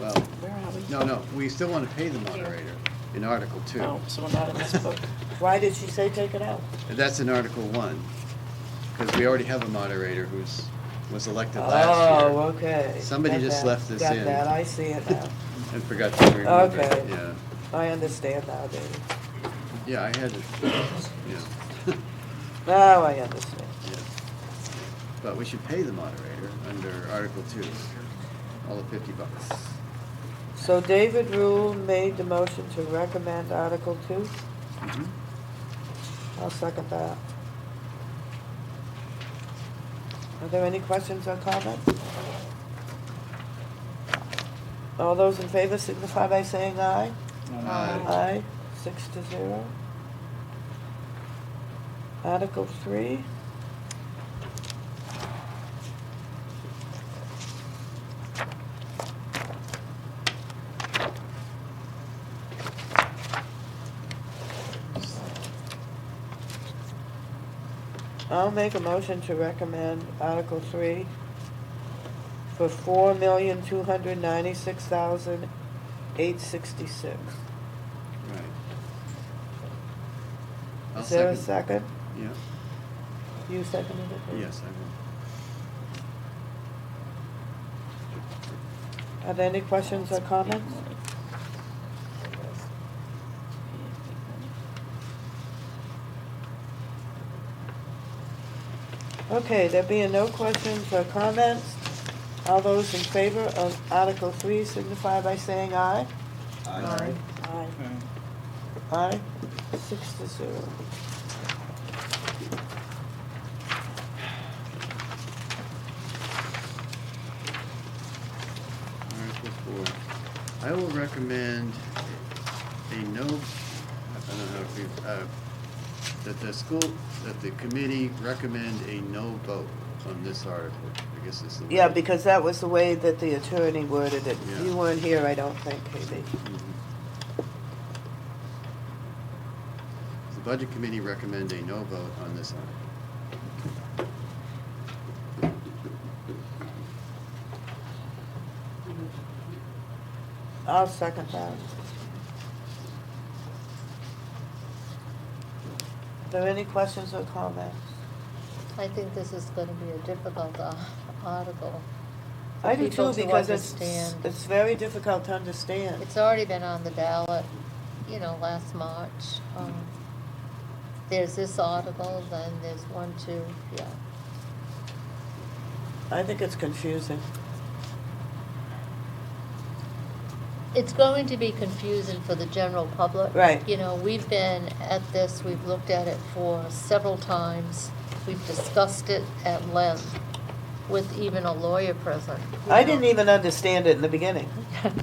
well, Where are we? no, no, we still want to pay the moderator in Article Two. No, so we're not in this book. Why did she say take it out? And That's in Article One, because we already have a moderator who's, was elected last Oh, year okay. Somebody Got just that. left this in. Got that, I see it now. and forgot to remove it, Okay. yeah. I understand now, David. Yeah, I had it, yeah, Now I understand. yeah. But we should pay the moderator under Article Two, all the fifty bucks. So David Rule made the motion to recommend Article Two. Mhm. I'll second that. Are there any questions or comments? All those in favor signify by saying aye. Uh, Aye, six to zero. Article three. I'll make a motion to recommend Article three for four million, two hundred ninety-six thousand, eight sixty-six. Right. I'll Is there a second? Yeah, You seconded it? yes, I will. Are there any questions or comments? Okay, there being no questions or comments, all those in favor of Article Three signify by saying aye. Aye. Aye. Aye, six to zero. Article four. I will recommend a no, I don't know how to, read- uh, that the school, that the committee recommend a no vote on this article. I guess it's the. Yeah, way- because that was the way that the attorney worded it. Yeah. You weren't here, I don't think, Katie. Mhm. The budget committee recommend a no vote on this article. I'll second that. there any questions or comments? I think this is gonna be a difficult uh, article. for I do people too, to because it's, understand. it's very difficult to understand. It's already been on the ballot, you know, last March. Um, There's this article, then there's one, two, yeah. I think it's confusing. It's going to be confusing for the general public. Right. You know, we've been at this, we've looked at it for several times. We've discussed it at length with even a lawyer present. you I know. didn't even understand it in the beginning.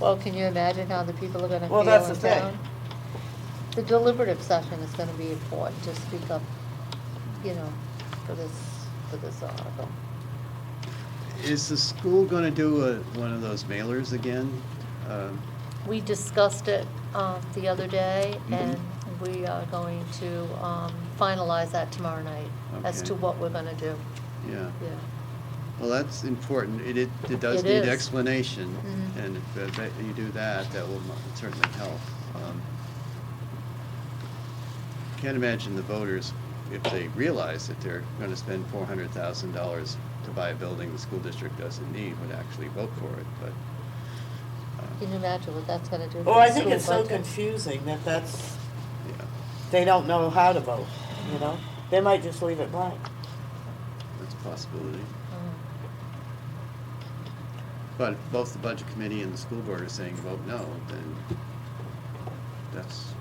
Well, can you imagine how the people are gonna feel Well, in town? that's the thing. The deliberative session is gonna be important to speak up, you know, for this, for this article. Is the school gonna do a, one of those mailers again? Um, We discussed it, um, the other day, Mm-hmm. Mhm. and we are going to, um, finalize that tomorrow night as Okay. to what we're gonna do, Yeah, yeah. well, that's important. It, it it does It need is. explanation, Mhm. and if uh, that you do that, that will mo- certainly help. Um, Can't imagine the voters, if they realize that they're gonna spend four hundred thousand dollars to buy a building the school district doesn't need, would actually vote for it, but. uh, Can you imagine what that's gonna do? for Oh, I the think school it's so budget? confusing that that's, Yeah, they don't know how to vote, you know? They might just leave it blank. that's a possibility. Mm. But if both the budget committee and the school board are saying vote no, then that's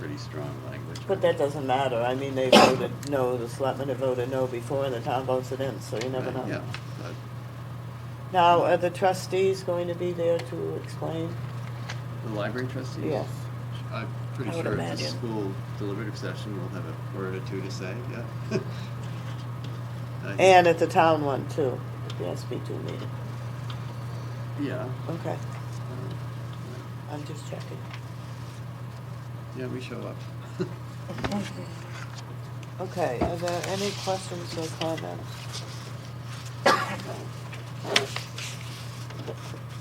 pretty strong language. But that doesn't matter. I mean, they voted no, the selectmen have voted no before, and the town votes it in, so you never Right, Yeah, know. but Now, are the trustees going to be there to explain? the library trustees? Yes. I'm pretty I would sure at the imagine. school deliberative session, we'll have a word or two to say, yeah. I- And at the town one too, the SB two meeting. Yeah. Okay, uh, I'm just checking. Yeah, we show up. Okay, are there any questions or comments?